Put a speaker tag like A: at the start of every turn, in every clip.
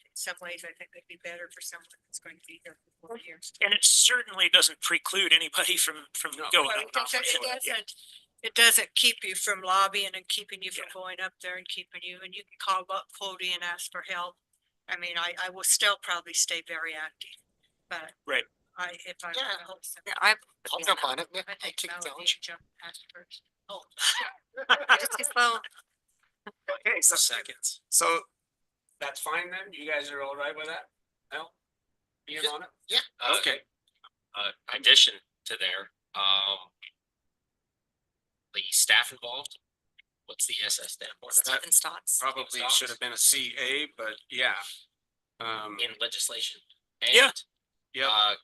A: in some ways, I think it'd be better for someone that's going to be here for four years.
B: And it certainly doesn't preclude anybody from, from going
A: Well,
B: up.
A: It doesn't- it doesn't- it doesn't keep you from lobbying and keeping you from going up there and keeping you, and you can call up Cody and ask for help. I mean, I, I will still probably stay very active, but.
B: Right.
A: I, if I.
C: Yeah. Yeah, I, I'll jump on it. Yeah,
A: I
C: I'll
A: think
C: take the
A: Melody
C: challenge.
A: jumped past first. Oh,
C: Just as well.
D: Okay, so
B: Seconds.
D: So that's fine then? You guys are all right with that? No? Being on it?
E: Uh,
D: Okay.
E: Uh, addition to there, um. The staff involved, what's the SS stand for?
C: Stephen Stotts.
D: Probably should have been a CA, but yeah. Um,
E: In legislation.
B: Yeah.
E: and,
D: yeah,
E: Uh,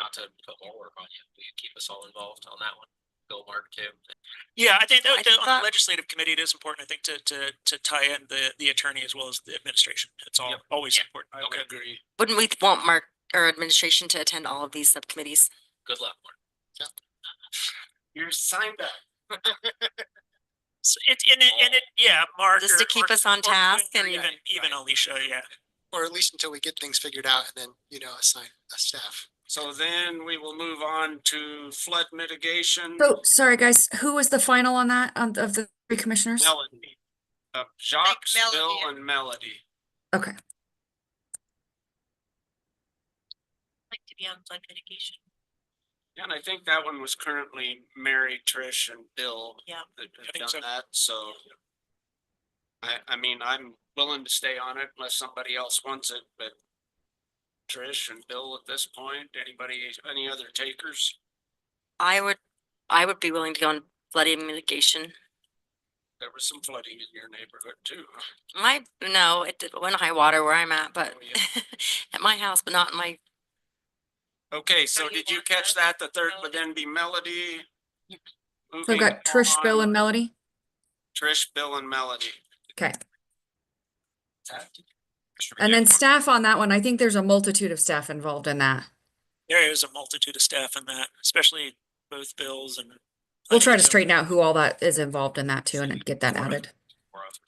E: not to put more work on you, will you keep us all involved on that one? Go Mark too.
B: Yeah, I think that,
C: I
B: that on
C: thought-
B: the legislative committee, it is important, I think, to, to, to tie in the, the attorney as well as the administration. It's all,
E: Yep.
B: always
E: Yeah.
B: important.
D: I would agree.
C: Wouldn't we want Mark or administration to attend all of these subcommittees?
E: Good luck, Mark.
D: You're signed up.
B: So it, and it, and it, yeah, Mark.
C: Just to
B: or-
C: keep
B: or-
C: us on
B: or-
C: task
B: or
C: and-
B: Even, even Alicia, yeah.
F: Or at least until we get things figured out and then, you know, assign a staff.
D: So then we will move on to flood mitigation.
G: So, sorry, guys, who was the final on that, on- of the three commissioners?
D: Melody. Uh, Jacques,
A: Melody
D: Bill
A: and-
D: and Melody.
G: Okay,
C: Like to be on flood mitigation.
D: And I think that one was currently Mary, Trish and Bill.
C: Yeah.
D: That
B: I think
D: have
B: so.
D: done that, so. I, I mean, I'm willing to stay on it unless somebody else wants it, but. Trish and Bill at this point, anybody, any other takers?
C: I would, I would be willing to go on flooding mitigation.
D: There was some flooding in your neighborhood too.
C: My, no, it did- went high water where I'm at, but
D: Oh, yeah.
C: at my house, but not in my,
D: Okay,
A: So
D: so
A: you
D: did you
A: want
D: catch
A: that,
D: that? The third would
A: Melody?
D: then be Melody.
G: so
D: Moving
G: we've got Trish, Bill
D: on,
G: and Melody.
D: Trish, Bill and Melody.
G: Okay. And then staff on that one, I think there's a multitude of staff involved in that.
B: There is a multitude of staff in that, especially both bills and.
G: We'll try to straighten out who all that is involved in that too and get that added.
E: Or of-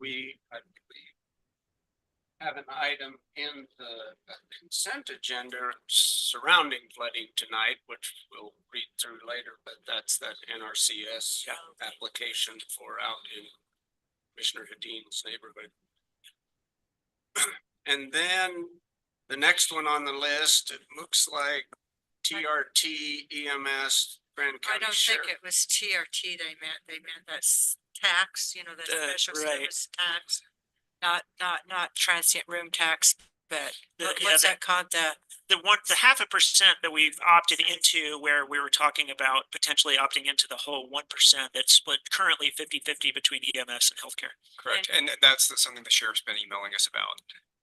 D: we, I believe. Have an item in the consent agenda surrounding flooding tonight, which we'll read through later, but that's that NRCS.
B: Yeah.
D: Application for out in Commissioner Hadeen's neighborhood. And then the next one on the list, it looks like TRT EMS E Grand
A: I
D: County
A: don't think
D: Sheriff.
A: it was TRT they meant, they meant that's tax, you know, that
B: Uh,
A: special
B: right.
A: service tax. Not, not, not transient room tax, but
B: The-
A: what-
B: yeah,
A: what's
B: the-
A: that called, the?
B: the one, the half a percent that we've opted into where we were talking about potentially opting into the whole one percent that's split currently 50-50 between EMS and healthcare.
A: Correct.
H: And th- that's the- something the sheriff's been emailing us about.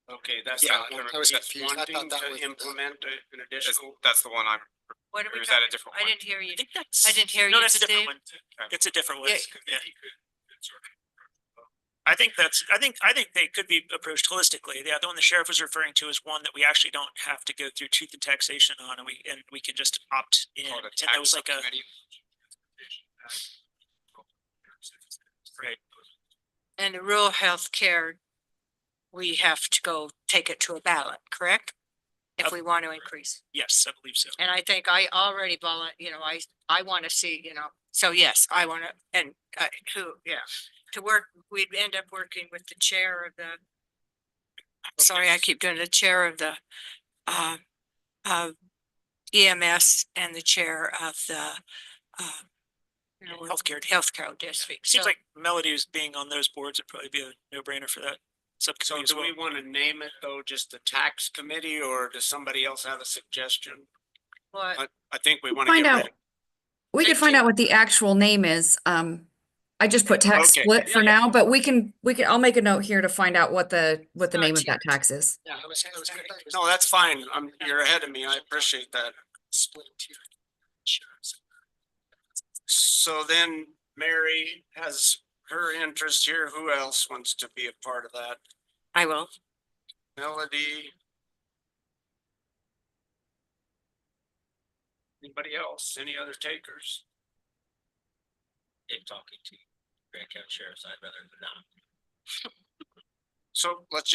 D: Okay, that's.
H: Yeah,
D: not-
F: I was
D: he's
F: confused. I thought
D: wanting
F: that
D: to
F: was the-
D: Implement a- an
H: Is-
D: additional.
H: That's the one I'm,
A: What are
H: Or
A: we
H: is that a
A: talking-
H: different
A: I
H: one?
A: didn't hear you.
B: I think that's.
A: I didn't hear
B: No,
A: you,
B: that's a different
A: Dave.
B: one. It's a different one.
A: Yeah.
B: Yeah. I think that's, I think, I think they could be approached holistically. The other one the sheriff was referring to is one that we actually don't have to go through tooth and taxation on and we, and we can just opt in.
H: called
B: And
H: a
B: that
H: tax
B: was like a,
H: subcommittee.
B: right.
A: And the rural health care, we have to go take it to a ballot, correct? If
B: Up-
A: we want to increase.
B: Yes, I believe so.
A: And I think I already volun, you know, I, I want to see, you know, so yes, I want to, and, uh, who, yeah. To work, we'd end up working with the chair of the, sorry, I keep doing the chair of the, uh, of EMS and the chair of the, uh, you know,
B: Healthcare.
A: Healthcare district.
B: Seems
A: So-
B: like Melody's being on those boards would probably be a no-brainer for that
D: So
B: subcommittee as
D: do
B: well.
D: we want to name it though, just the tax committee or does somebody else have a suggestion?
A: What?
D: I think we want to
G: Find
D: get
G: out.
D: rid of.
G: We could
A: Thank
G: find
A: you.
G: out what the actual name is. Um, I just put tax
D: Okay.
G: split
D: Yeah,
G: for
D: yeah.
G: now, but we can, we can, I'll make a note here to find out what the, what the
A: Not
G: name of that
A: tiered.
G: tax is.
F: Yeah, I was, I was gonna- I was
D: No, that's fine. i you're ahead of me. I appreciate that.
F: split tier insurance.
D: So then Mary has her interest here. Who else wants to be a part of that?
C: I will.
D: Melody? Anybody else? Any other takers?
E: If talking to Grand County Sheriff's, I'd rather than not.
D: So let's